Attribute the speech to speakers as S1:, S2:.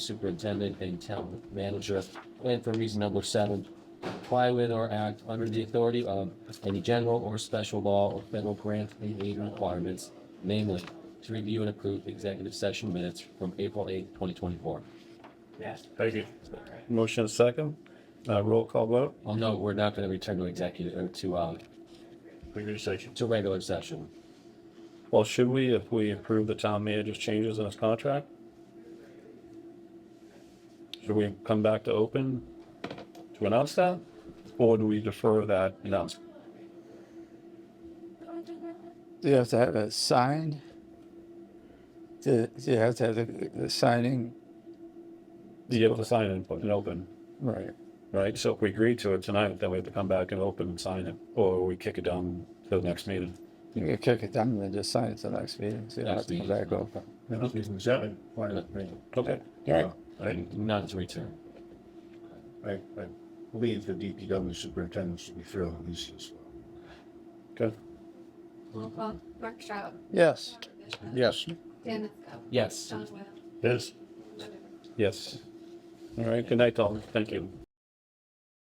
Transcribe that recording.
S1: superintendent and town manager. And for reason number seven, comply with or act under the authority of any general or special law or federal grant and aid requirements, namely to review and approve executive session minutes from April eighth, twenty twenty-four.
S2: Yes.
S3: Thank you.
S4: Motion is second. Uh, roll call vote.
S1: Well, no, we're not gonna return to executive, or to, uh,
S3: Conversation.
S1: to regular session.
S4: Well, should we, if we approve the town manager's changes in his contract? Should we come back to open to announce that? Or do we defer that announcement?
S5: Do you have to have it signed? Do, do you have to have the, the signing?
S4: Do you have to sign it and put it open,
S5: Right.
S4: right? So if we agree to it tonight, then we have to come back and open and sign it, or we kick it down to the next meeting.
S5: You can kick it down and then just sign it to the next meeting. So you don't have
S1: Next
S5: to come
S1: meeting.
S5: back over.
S3: Seven.
S1: Uh,
S4: Okay.
S3: Right.
S1: Not to return.
S3: I, I believe the DPW superintendent should be fairly easy as well.
S4: Good.
S2: Well, Mark Stroud,
S5: Yes.
S3: Yes.
S2: Dan
S1: Yes.
S2: John Webb.
S3: Yes.
S4: Yes. All right. Good night, all. Thank you.